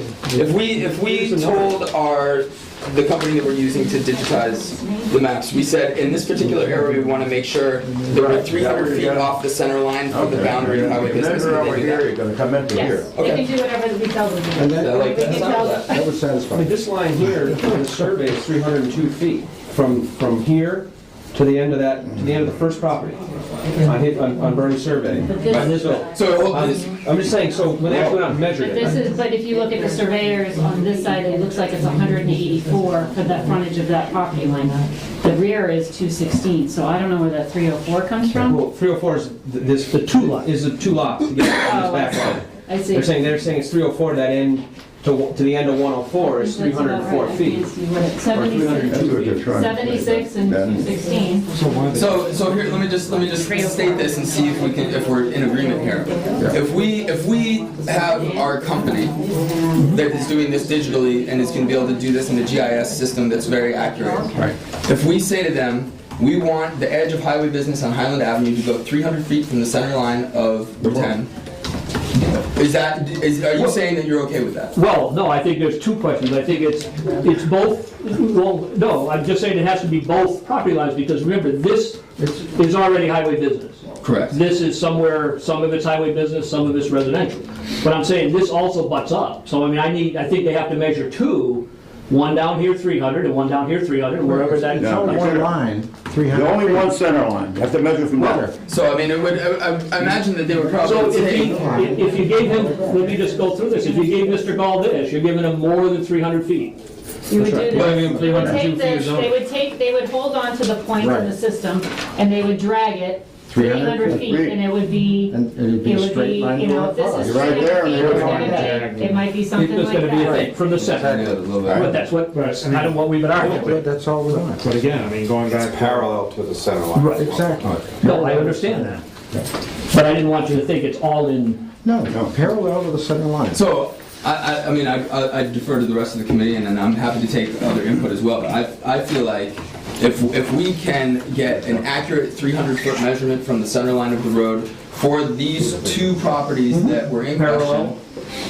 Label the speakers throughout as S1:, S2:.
S1: If we, if we told our, the company that we're using to digitize the maps, we said, in this particular area, we want to make sure that we're 300 feet off the center line from the boundary of highway
S2: If you
S1: business.
S2: measure over
S1: and they do
S2: here,
S1: that.
S2: you're gonna come into here.
S3: Yes, they can do whatever we tell them. to
S4: And
S3: do.
S4: that-
S1: I like
S3: They
S1: that.
S3: can tell them,
S4: That would
S5: I mean,
S4: satisfy.
S5: this line here, from the survey, is 302 feet, from, from here to the end of that, to the end of the first property, on hit, on, on Bernie's survey.
S3: But this-
S5: So,
S1: So
S2: Um,
S5: I'm
S1: is-
S5: I'm just saying, so when they actually went out and measured
S3: But this
S5: it,
S3: is, but if you look at the surveyors on this side, it looks like it's 184 for that frontage of that property line. The rear is 216, so I don't know where that 304 comes from.
S5: well, 304 is th- this.
S6: The two lot.
S5: Is the two lots together
S3: Oh,
S5: on
S3: I
S5: this back line.
S3: I see.
S5: They're saying, they're saying it's 304, that end, to, wa- to the end of 104 is
S3: That's about right.
S5: 304
S3: I
S5: feet.
S3: can't see what it- 76
S2: That's what they're trying to say.
S3: 76 and 216.
S1: So, so here, let me just, let me just state this and see if we can, if we're in agreement here. If we, if we have our company that is doing this digitally and is gonna be able to do this in a GIS system that's very accurate. Right. If we say to them, we want the edge of highway business on Highland Avenue to go three hundred feet from the center line of Route ten. Is that, is, are you saying that you're okay with that?
S6: Well, no, I think there's two questions. I think it's, it's both, well, no, I'm just saying it has to be both property lines, because remember, this is already highway business.
S1: Correct.
S6: This is somewhere, some of it's highway business, some of it's residential. But I'm saying this also butts up. So I mean, I need, I think they have to measure two, one down here 300 and one down here 300, wherever that is.
S2: No.
S6: shown.
S4: One line, 300.
S2: The only one center line, you have to measure from there.
S1: So, I mean, it would, I, I- I imagine that they would
S6: So
S1: probably
S6: if you,
S1: say,
S6: if if you gave him, let me just go through this, if you gave Mr. Gall this, you're giving him more than 300 feet.
S3: You would do this.
S1: Well, I mean,
S3: They would take this, they would take, they would hold on to the point in the
S4: Right.
S3: system, and they would drag it
S4: 300
S3: 300 feet, and it would be, it
S4: And it'd
S3: would
S4: be
S3: be,
S4: a straight line
S3: you know,
S4: going
S3: if this
S4: across.
S3: is
S2: Right
S3: 300 feet,
S2: there, and there it
S3: it's gonna
S2: is.
S3: be, it might be something
S6: It's
S3: like
S6: gonna be
S3: that.
S6: like from the center. But that's what, that's kind of what we've been
S4: But
S6: arguing.
S4: that's all we want.
S7: But again, I mean, going back. Parallel to the center line.
S4: Right, exactly.
S6: No, I understand that. But I didn't want you to think it's all in,
S4: No, no, parallel to the center line.
S1: So, I, I, I mean, I, I I defer to the rest of the committee, and, and I'm happy to take other input as well. But I, I feel like if, if we can get an accurate 300 foot measurement from the center line of the road for these two properties that were in
S6: Parallel.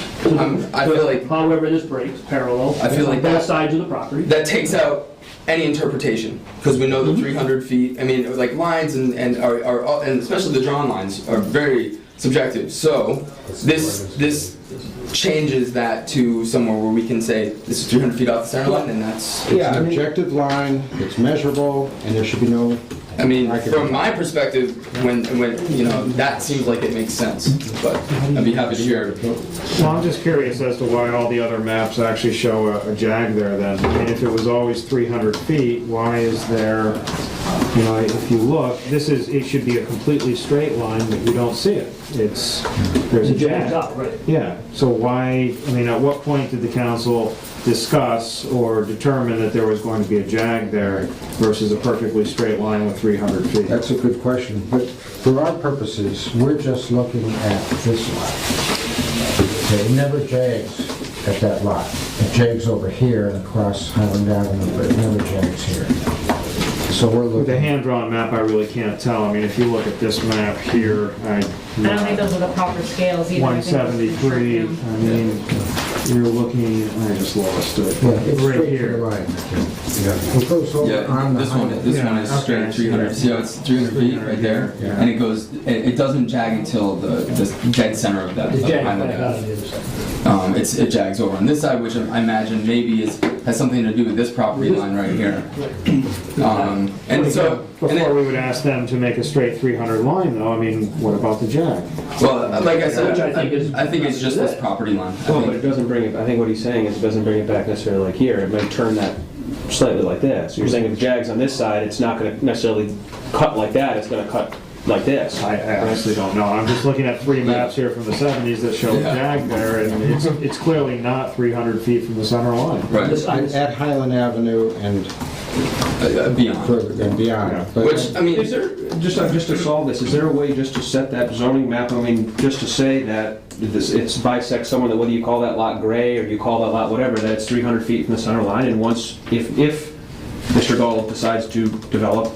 S1: question, I'm, I feel like
S6: however this breaks, parallel.
S1: I feel like
S6: on Both
S1: that-
S6: sides of the property.
S1: that takes out any interpretation because we know the 300 feet. I mean, like lines and and are, are all- and especially the drawn lines are very subjective. So this this changes that to somewhere where we can say this is 300 feet off the center line, and that's.
S4: It's an objective line, it's measurable, and there should be no,
S1: I mean, from my perspective, when when you know that seems like it makes sense, but I'd be happy to hear.
S7: Well, I'm just curious as to why all the other maps actually show a a jag there then. I mean, if it was always 300 feet, why is there, you know, if you look, this is, it should be a completely straight line, but you don't see it. It's, there's a
S6: It jams
S7: jag.
S6: out, right?
S7: Yeah, so why, I mean, at what point did the council discuss or determine that there was going to be a jag there versus a perfectly straight line with 300 feet?
S4: that's a good question. But for our purposes, we're just looking at this lot. Okay, it never jags at that lot. It jags over here and across Highland Avenue, but it never jags here. So we're
S7: With a
S4: looking,
S7: hand-drawn map, I really can't tell. I mean, if you look at this map here, I...
S3: I don't think those are the proper scales either. I think those are
S7: 173, I
S3: short term.
S7: mean, you're looking, I just lost it.
S4: yeah, it's straight
S7: Right
S4: to the
S7: here.
S4: line. It goes over
S1: Yeah,
S4: on the
S1: this one,
S4: highway.
S1: this one
S7: Yeah,
S1: is
S7: okay,
S1: straight
S7: I see
S1: 300,
S7: that.
S1: see how it's 300 feet right there?
S4: Yeah.
S1: And it goes, it, it doesn't jag until the, the dead center of that.
S6: The
S1: of
S6: jag
S1: Highland
S6: back out
S1: Ave.
S6: of the other side.
S1: Um, it's, it jags over on this side, which I imagine maybe is, has something to do with this property line right here. Um, and so, and
S7: Before
S1: it-
S7: we would ask them to make a straight 300 line, though, I mean, what about the jag?
S1: well, like I said,
S6: Which I think is-
S1: I think it's just this property line. I
S5: Well, but it
S1: think.
S5: doesn't bring it, I think what he's saying is it doesn't bring it back necessarily like here, it might turn that slightly like this. You're saying if the jag's on this side, it's not gonna necessarily cut like that, it's gonna cut like this.
S7: I I honestly don't know. I'm just looking at three maps here from the 70s that show a
S1: Yeah.
S7: jag there, and it's, it's clearly not 300 feet from the center line.
S1: Right,
S6: This side.
S4: At Highland Avenue and
S1: uh, uh, beyond.
S4: further and beyond. but-
S1: Which, I mean,
S5: Is there, just, uh, just to solve this, is there a way just to set that zoning map, I mean, just to say that this, it's bisect someone, that whether you call that lot gray or you call that lot whatever, that it's 300 feet from the center line, and once, if, if Mr. Gall decides to develop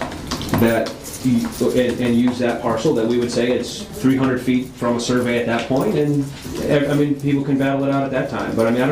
S5: that you- and, and use that parcel, that we would say it's 300 feet from a survey at that point, and, eh, I mean, people can battle it out at that time, but I mean, I don't